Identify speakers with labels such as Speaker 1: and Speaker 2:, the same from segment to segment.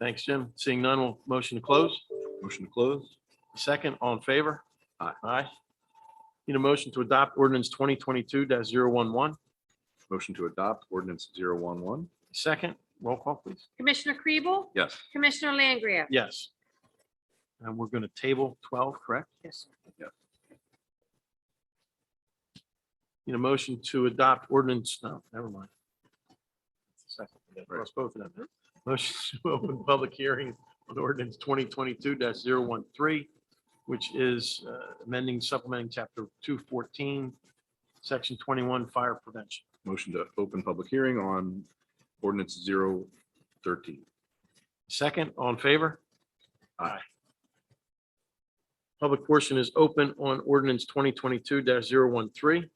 Speaker 1: Thanks, Jim. Seeing none, we'll motion to close.
Speaker 2: Motion to close?
Speaker 1: Second, all in favor?
Speaker 2: Aye.
Speaker 1: Aye. Need a motion to adopt ordinance twenty twenty-two 11
Speaker 2: Motion to adopt ordinance 011.
Speaker 1: Second, roll call, please.
Speaker 3: Commissioner Kribel?
Speaker 2: Yes.
Speaker 3: Commissioner Langria?
Speaker 1: Yes. And we're going to table twelve, correct?
Speaker 3: Yes.
Speaker 1: Need a motion to adopt ordinance, no, never mind. Second, I Cross both of them. Motion to open public hearing on ordinance twenty twenty-two 13 which is uh, amending supplementing chapter two fourteen, section twenty-one, fire prevention.
Speaker 2: Motion to open public hearing on ordinance 013.
Speaker 1: Second, all in favor?
Speaker 2: Aye.
Speaker 1: Public portion is open on ordinance twenty twenty-two 13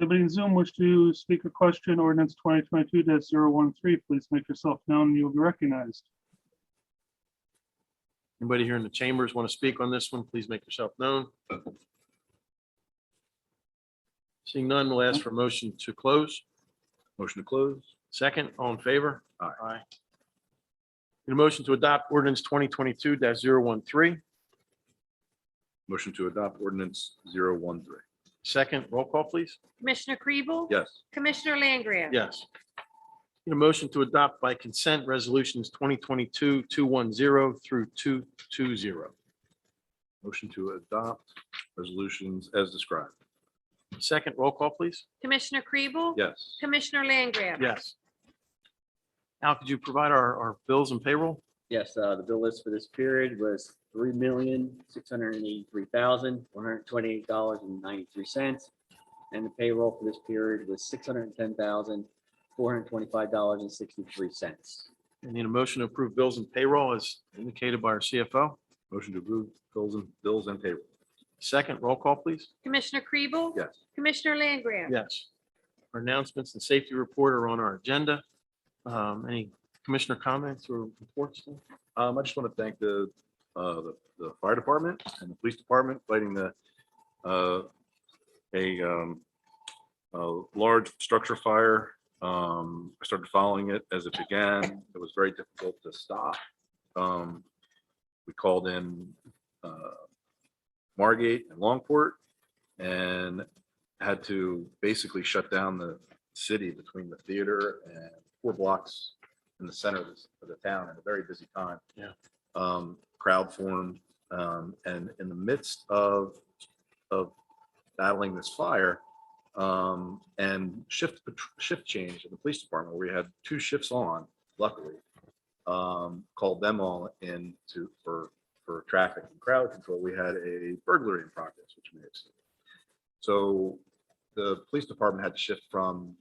Speaker 4: Anybody in Zoom wish to speak a question, ordinance twenty twenty-two 13 please make yourself known, and you'll be recognized.
Speaker 1: Anybody here in the chambers want to speak on this one? Please make yourself known. Seeing none, we'll ask for a motion to close.
Speaker 2: Motion to close?
Speaker 1: Second, all in favor?
Speaker 2: Aye.
Speaker 1: Need a motion to adopt ordinance twenty twenty-two 13
Speaker 2: Motion to adopt ordinance 013.
Speaker 1: Second, roll call, please.
Speaker 3: Commissioner Kribel?
Speaker 2: Yes.
Speaker 3: Commissioner Langria?
Speaker 1: Yes. Need a motion to adopt by consent resolutions 2022-210 through two two zero.
Speaker 2: Motion to adopt resolutions as described.
Speaker 1: Second, roll call, please.
Speaker 3: Commissioner Kribel?
Speaker 2: Yes.
Speaker 3: Commissioner Langria?
Speaker 1: Yes. Al, could you provide our, our bills and payroll?
Speaker 5: Yes, uh, the bill list for this period was three million, six hundred and eighty-three thousand, one hundred and twenty-eight dollars and ninety-three cents. And the payroll for this period was six hundred and ten thousand, four hundred and twenty-five dollars and sixty-three cents.
Speaker 1: I need a motion to approve bills and payroll as indicated by our CFO.
Speaker 2: Motion to approve bills and bills and payroll.
Speaker 1: Second, roll call, please.
Speaker 3: Commissioner Kribel?
Speaker 2: Yes.
Speaker 3: Commissioner Langria?
Speaker 1: Yes. Our announcements and safety report are on our agenda. Um, Any commissioner comments or reports?
Speaker 2: Um, I just want to thank the, uh, the, the fire department and the police department fighting the, uh, a, um, a large structure fire. Um, I started following it as it began. It was very difficult to stop. Um, we called in, uh, Margate and Longport and had to basically shut down the city between the theater and four blocks in the center of the, of the town at a very busy time.
Speaker 1: Yeah.
Speaker 2: Um, crowd formed, um, and in the midst of, of battling this fire, um, and shift, pat- shift change in the police department, where we had two shifts on, luckily. Um, called them all in to, for, for traffic and crowd control, we had a burglary in progress, which may have seen. So the police department had to shift from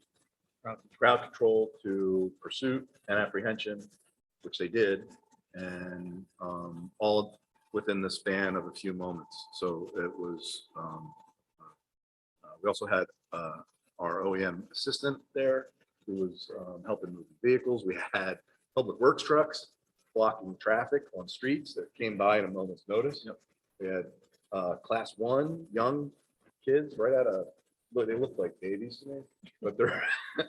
Speaker 2: crowd control to pursuit and apprehension, which they did, and um, all within the span of a few moments. So it was, um, uh, we also had uh, our OEM assistant there who was um, helping move vehicles. We had public works trucks blocking traffic on streets that came by at a moment's notice. We had uh, class one, young kids right out of, look, they look like babies to me, but they're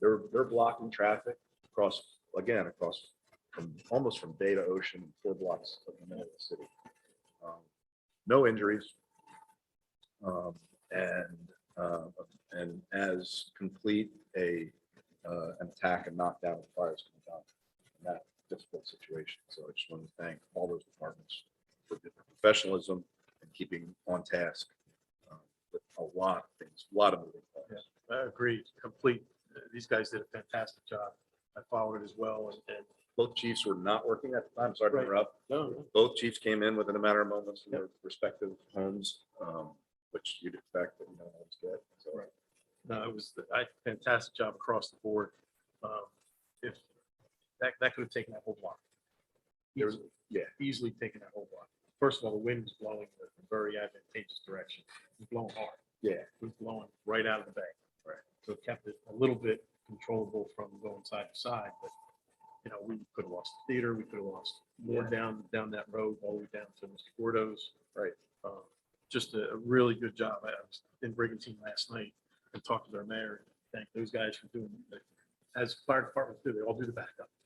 Speaker 2: they're, they're blocking traffic across, again, across from, almost from bay to ocean, four blocks of the middle of the city. Um, No injuries. Um, And, uh, and as complete a, uh, an attack and knockdown of fires can come in that difficult situation. So I just want to thank all those departments for their professionalism and keeping on task. um, With a lot of things, a lot of moving parts.
Speaker 1: Agreed, complete. These guys did a fantastic job. I followed it as well and.
Speaker 2: Both chiefs were not working at the time, sorry to
Speaker 1: Right.
Speaker 2: interrupt.
Speaker 1: No,
Speaker 2: both chiefs came in within a matter of moments from their respective homes, um, which you'd expect, but you know, it's good. So,
Speaker 1: no, it was, I, fantastic job across the board. Um, If, that, that could have taken that whole block.
Speaker 2: There was-
Speaker 1: Easily.
Speaker 2: yeah.
Speaker 1: Easily taken that whole block. First of all, the wind was blowing in a very advantageous direction, It was blowing hard.
Speaker 2: Yeah.
Speaker 1: It was blowing right out of the bay.
Speaker 2: Right.
Speaker 1: So it kept it a little bit controllable from going side to side, but, you know, we could have lost the theater, we could have lost more down, down that road, all the way down to Mr. Gordo's.
Speaker 2: Right.
Speaker 1: Uh, Just a a really good job. I was in Brigantine last night and talked to their mayor. Thank those guys for doing, as fire departments do, they all do the backup.